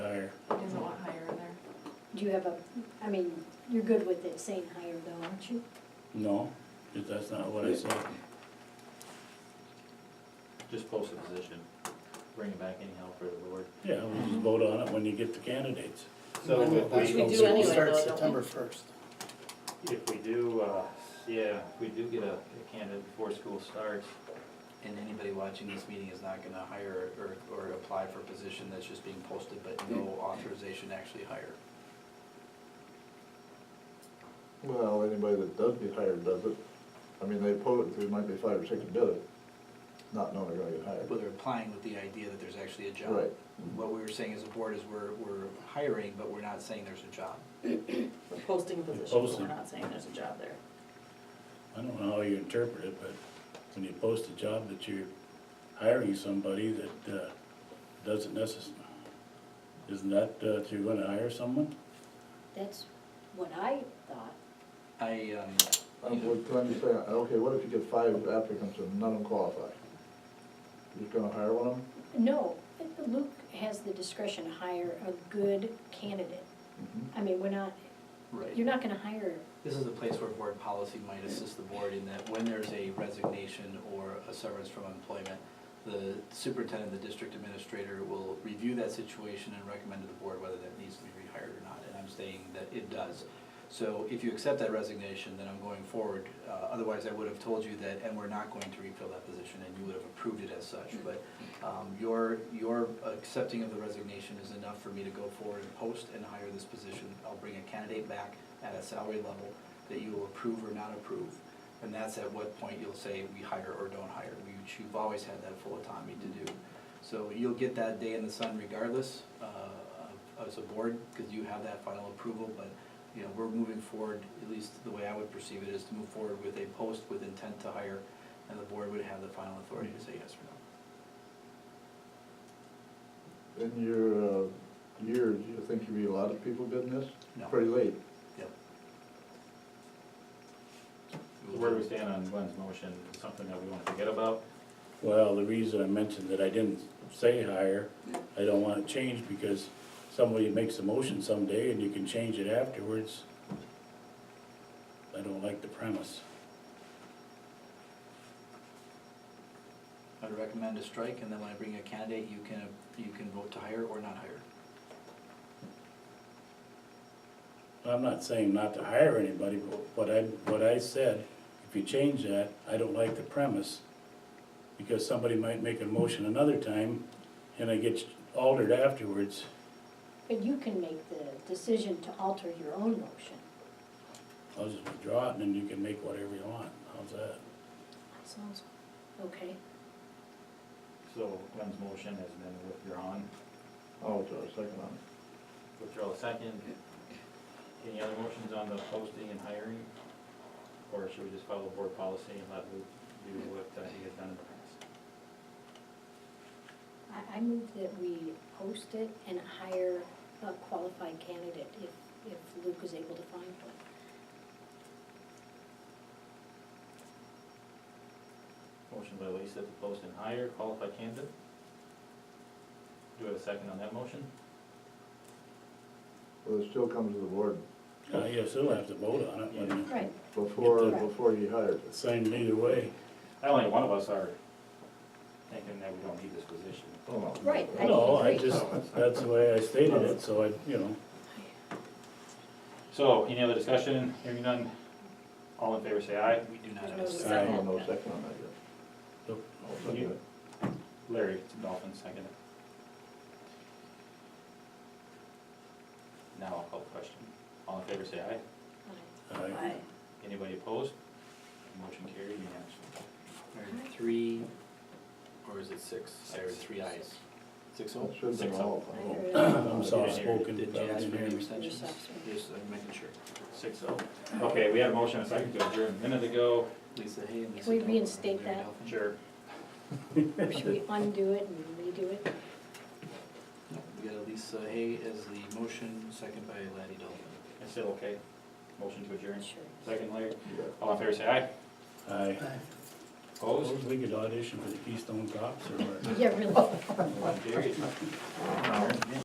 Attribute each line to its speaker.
Speaker 1: you have a, I mean, you're good with it saying higher though, aren't you?
Speaker 2: No, if that's not what I said.
Speaker 3: Just post the position, bring it back anyhow for the board.
Speaker 2: Yeah, we just vote on it when you get the candidates.
Speaker 3: So if
Speaker 4: That's
Speaker 3: we,
Speaker 4: when
Speaker 5: do
Speaker 4: school
Speaker 5: anyway,
Speaker 4: starts
Speaker 5: though, don't we?
Speaker 4: September first.
Speaker 3: if we do, uh, yeah, if we do get a a candidate before school starts,
Speaker 6: And anybody watching this meeting is not gonna hire or, or apply for a position that's just being posted, but no authorization to actually hire.
Speaker 7: Well, anybody that does get hired does it. I mean, they post, there might be five or six that did it, not knowing they're gonna get hired.
Speaker 6: Well, they're applying with the idea that there's actually a job.
Speaker 7: Right.
Speaker 6: What we were saying as a board is we're, we're hiring, but we're not saying there's a job.
Speaker 5: We're posting a position, but
Speaker 2: Posting.
Speaker 5: we're not saying there's a job there.
Speaker 2: I don't know how you interpret it, but when you post a job that you're hiring somebody that, uh, doesn't necess, isn't that, uh, that you're gonna hire someone?
Speaker 1: That's what I thought.
Speaker 6: I, um,
Speaker 7: I'm, what I'm just saying, okay, what if you get five applicants and none of them qualify? You're just gonna hire one of them?
Speaker 1: No, Luke has the discretion to hire a good candidate. I mean, we're not,
Speaker 6: right.
Speaker 1: you're not gonna hire,
Speaker 6: This is a place where board policy might assist the board in that when there's a resignation or a severance from employment, the superintendent, the district administrator will review that situation and recommend to the board whether that needs to be rehired or not. And I'm saying that it does. So if you accept that resignation, then I'm going forward. Uh, Otherwise, I would have told you that, and we're not going to refill that position, and you would have approved it as such. But um, your, your accepting of the resignation is enough for me to go forward and post and hire this position. I'll bring a candidate back at a salary level that you will approve or not approve. And that's at what point you'll say, we hire or don't hire. We- You've always had that full autonomy to do. So you'll get that day in the sun regardless uh, of- as a board, because you have that final approval. But, you know, we're moving forward, at least the way I would perceive it, is to move forward with a post with intent to hire, and the board would have the final authority to say yes or no.
Speaker 7: In your, uh, year, do you think you'd be a lot of people bidding this?
Speaker 6: No.
Speaker 7: Pretty late.
Speaker 6: Yep.
Speaker 3: where do we stand on Glenn's motion, something that we wanna forget about?
Speaker 2: Well, the reason I mentioned that I didn't say hire, I don't want it changed because somebody makes a motion someday and you can change it afterwards. I don't like the premise.
Speaker 6: I'd recommend a strike, and then when I bring a candidate, you can, you can vote to hire or not hire.
Speaker 2: I'm not saying not to hire anybody, but what I, what I said, if you change that, I don't like the premise. Because somebody might make a motion another time and it gets altered afterwards.
Speaker 1: but you can make the decision to alter your own motion.
Speaker 2: I'll just withdraw it and then you can make whatever you want. How's that?
Speaker 1: Sounds. Okay,
Speaker 3: So Glenn's motion has been withdrawn,
Speaker 7: I'll draw a Oh, second on it.
Speaker 3: withdraw a second. Any other motions on the posting and hiring? Or should we just follow board policy and let Luke do what uh, he has done in the past?
Speaker 1: I, I move that we post it and hire a qualified candidate if, if Luke is able to find one.
Speaker 3: Motion by Lisa to post and hire qualified candidate. Do we have a second on that motion?
Speaker 7: Well, it still comes to the board
Speaker 2: Uh, you still have to vote on it, but
Speaker 1: Right,
Speaker 7: before,
Speaker 1: Right.
Speaker 7: before he hires
Speaker 2: it's
Speaker 7: it.
Speaker 2: signed either way.
Speaker 3: I don't think one of us are thinking that we don't need this position.
Speaker 7: Oh, no.
Speaker 1: Right, I
Speaker 2: No, I
Speaker 1: agree.
Speaker 2: just, that's the way I stated it, so I, you know,
Speaker 3: So, any other discussion? Hearing none, all in favor say aye.
Speaker 6: We do not have
Speaker 5: No
Speaker 6: a
Speaker 5: second.
Speaker 6: second.
Speaker 7: I don't know, second on that yet.
Speaker 2: Nope.
Speaker 7: I'll second
Speaker 3: You-
Speaker 7: it.
Speaker 3: Larry, Dolphin, second. Now I'll call the question. All in favor say
Speaker 1: Aye.
Speaker 3: aye.
Speaker 2: I,
Speaker 5: Aye.
Speaker 3: Anybody opposed? Motion carried unanimously.
Speaker 6: There are Three, or is it six? I heard three ayes. Six oh?
Speaker 7: It should have been
Speaker 3: Six
Speaker 7: all.
Speaker 1: I
Speaker 7: all-
Speaker 1: agree.
Speaker 2: I'm soft spoken.
Speaker 6: Did you ask for any extensions?
Speaker 1: Yes, absolutely.
Speaker 6: Yes, I'm making sure.
Speaker 3: Six oh. Okay, we had a motion and a second to adjourn a minute ago.
Speaker 6: Lisa Hay and Lisa.
Speaker 1: we
Speaker 6: Delphin, Larry
Speaker 1: reinstate that?
Speaker 6: Delphin.
Speaker 3: Sure.
Speaker 1: Or Should we undo it and redo it?
Speaker 6: No, We got Lisa Hay as the motion, second by Laddie Dolphin.
Speaker 3: It's still okay. Motion to adjourn.
Speaker 1: Sure.
Speaker 3: Second, Larry.
Speaker 7: Yeah.
Speaker 3: All in favor say aye.
Speaker 2: I,
Speaker 3: Opposed?
Speaker 2: we could audition for the Keystone Cops or whatever.
Speaker 1: Yeah, really.
Speaker 3: Motion carried.